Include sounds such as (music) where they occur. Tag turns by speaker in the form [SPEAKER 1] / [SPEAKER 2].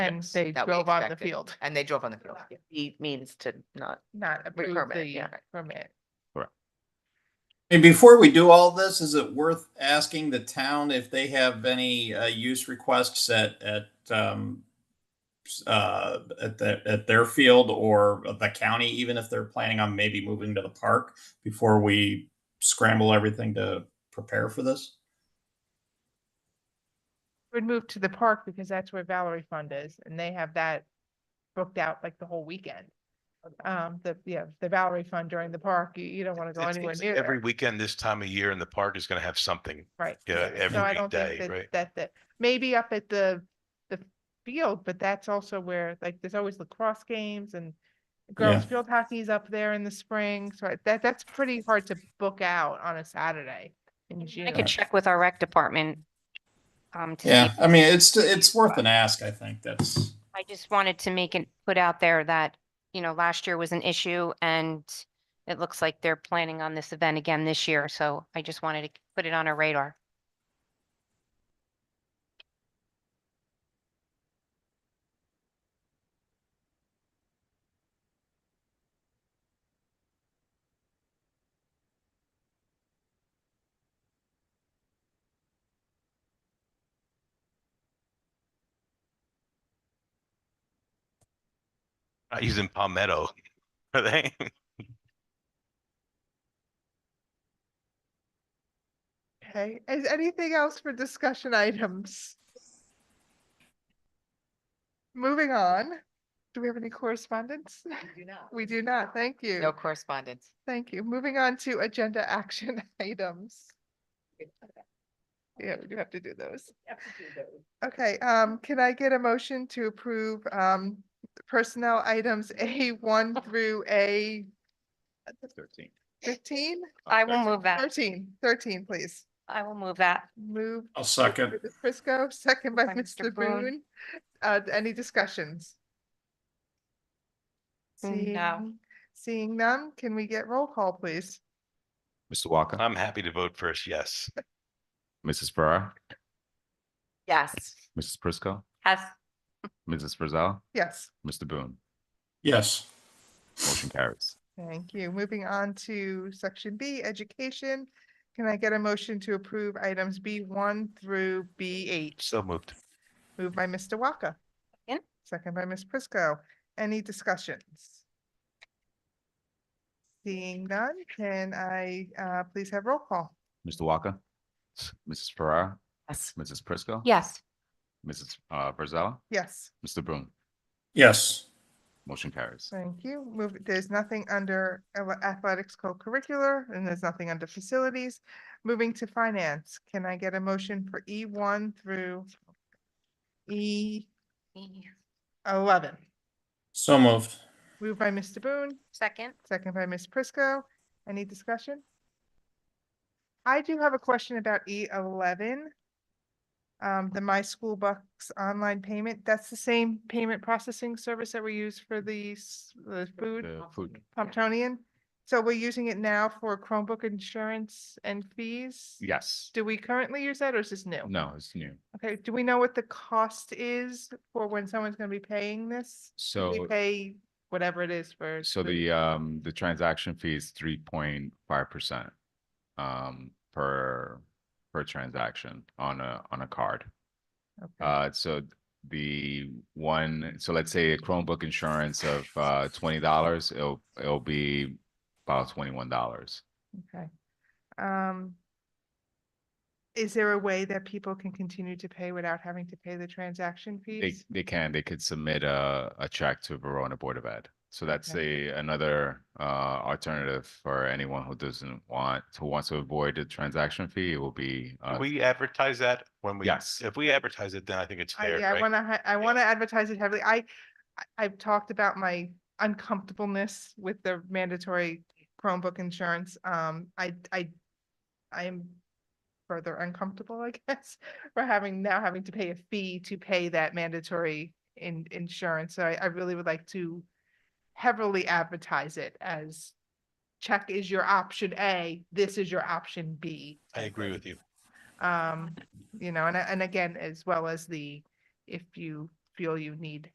[SPEAKER 1] And
[SPEAKER 2] Yes,
[SPEAKER 1] they
[SPEAKER 2] that we
[SPEAKER 1] drove on the
[SPEAKER 2] expected.
[SPEAKER 1] field,
[SPEAKER 2] And they drove on the field. yeah.
[SPEAKER 3] He means to not.
[SPEAKER 1] not approve
[SPEAKER 3] permit,
[SPEAKER 1] the
[SPEAKER 3] yeah.
[SPEAKER 1] permit.
[SPEAKER 4] And before we do all this, is it worth asking the town if they have any uh, use requests at, at, um, s- uh, at, the, at their field or the county, even if they're planning on maybe moving to the park before we scramble everything to prepare for this?
[SPEAKER 1] Would move to the park because that's where Valerie Fund is and they have that booked out like the whole weekend. Um, the, yeah, the Valerie Fund during the park, you, you don't want to go
[SPEAKER 5] It
[SPEAKER 1] anywhere
[SPEAKER 5] seems
[SPEAKER 1] near
[SPEAKER 5] Every
[SPEAKER 1] there,
[SPEAKER 5] weekend this time of year in the park is gonna have something.
[SPEAKER 1] right?
[SPEAKER 5] Yeah, every
[SPEAKER 1] So I don't think
[SPEAKER 5] weekday,
[SPEAKER 1] that-
[SPEAKER 5] right?
[SPEAKER 1] That, that, maybe up at the, the field, but that's also where, like, there's always lacrosse games and girls field hockey's up there in the spring, so I- that, that's pretty hard to book out on a Saturday in June.
[SPEAKER 6] I could check with our rec department. Um, to see
[SPEAKER 4] Yeah,
[SPEAKER 6] if-
[SPEAKER 4] I mean, it's, it's worth an ask, I think, that's.
[SPEAKER 6] I just wanted to make it, put out there that, you know, last year was an issue and it looks like they're planning on this event again this year. So I just wanted to put it on our radar.
[SPEAKER 5] Uh, He's in Palmetto. (laughs) Are they?
[SPEAKER 1] Okay, is anything else for discussion items? Moving on, do we have any correspondence? (laughs) We do not, thank
[SPEAKER 2] No
[SPEAKER 1] you,
[SPEAKER 2] correspondence.
[SPEAKER 1] thank you. Moving on to agenda (laughs) action items. Yeah, we do have to do those. Okay, um, can I get a motion to approve, um, personnel items A one through A
[SPEAKER 5] Thirteen.
[SPEAKER 1] fifteen?
[SPEAKER 6] I will move that.
[SPEAKER 1] Thirteen, thirteen, please.
[SPEAKER 6] I will move that.
[SPEAKER 1] Move
[SPEAKER 4] I'll second.
[SPEAKER 1] Mr. Frisco, second by
[SPEAKER 6] By Mr.
[SPEAKER 1] Mr.
[SPEAKER 6] Boone.
[SPEAKER 1] Boone. Uh, any discussions?
[SPEAKER 6] No.
[SPEAKER 1] Seeing- Seeing none, can we get roll call, please?
[SPEAKER 7] Mr. Walker,
[SPEAKER 5] I'm happy to vote first, yes.
[SPEAKER 7] Mrs. Ferrara,
[SPEAKER 2] Yes.
[SPEAKER 7] Mrs. Prisco,
[SPEAKER 6] Has,
[SPEAKER 7] Mrs. Frizell,
[SPEAKER 1] Yes,
[SPEAKER 7] Mr. Boone.
[SPEAKER 4] Yes.
[SPEAKER 7] Motion carries.
[SPEAKER 1] thank you. Moving on to section B, education. Can I get a motion to approve items B one through B eight?
[SPEAKER 5] So moved.
[SPEAKER 1] Moved by Mr. Walker.
[SPEAKER 6] Second.
[SPEAKER 1] Second by Ms. Prisco. Any discussions? Seeing none, can I, uh, please have roll call?
[SPEAKER 7] Mr. Walker, Mrs. Ferrara,
[SPEAKER 2] Yes.
[SPEAKER 7] Mrs. Prisco.
[SPEAKER 6] yes,
[SPEAKER 7] Mrs. Uh, Frizell,
[SPEAKER 1] Yes.
[SPEAKER 7] Mr. Boone.
[SPEAKER 4] Yes.
[SPEAKER 7] Motion carries.
[SPEAKER 1] Thank you. Move, there's nothing under ele- athletics co-curricular and there's nothing under facilities. Moving to finance, can I get a motion for E one through E eleven?
[SPEAKER 4] So moved.
[SPEAKER 1] Moved by Mr. Boone,
[SPEAKER 6] second.
[SPEAKER 1] second by Ms. Prisco. Any discussion? I do have a question about E eleven. Um, the My School Bucks online payment, that's the same payment processing service that we use for the, s- the food?
[SPEAKER 7] The food,
[SPEAKER 1] Pomptonian. So we're using it now for Chromebook insurance and fees?
[SPEAKER 7] yes.
[SPEAKER 1] Do we currently use that or is this new?
[SPEAKER 7] No, it's new.
[SPEAKER 1] Okay, do we know what the cost is for when someone's gonna be paying this? We
[SPEAKER 7] So,
[SPEAKER 1] pay whatever it is for.
[SPEAKER 7] so the, um, the transaction fee is three point five percent um, per, per transaction on a, on a card.
[SPEAKER 1] Okay.
[SPEAKER 7] Uh, so the one, so let's say a Chromebook insurance of uh twenty dollars, it'll it'll be about twenty-one dollars.
[SPEAKER 1] Okay. Um. Is there a way that people can continue to pay without having to pay the transaction
[SPEAKER 7] They
[SPEAKER 1] fees?
[SPEAKER 7] they can, they could submit a a check to Verona Board of Ed. So that's a another uh alternative for anyone who doesn't want to wants to avoid the transaction fee, it will be
[SPEAKER 5] Do
[SPEAKER 7] uh
[SPEAKER 5] we advertise that when we?
[SPEAKER 7] Yes.
[SPEAKER 5] If we advertise it, then I think it's
[SPEAKER 1] I,
[SPEAKER 5] fair,
[SPEAKER 1] yeah, I
[SPEAKER 5] right?
[SPEAKER 1] wanna, hi- I wanna advertise it heavily. I, I- I've talked about my uncomfortableness with the mandatory Chromebook insurance. Um, I, I, I am further uncomfortable, I (laughs) guess, for having, now having to pay a fee to pay that mandatory in, insurance. So I, I really would like to heavily advertise it as check is your option A, this is your option B.
[SPEAKER 5] I agree with you.
[SPEAKER 1] Um, you know, and, and again, as well as the, if you feel you need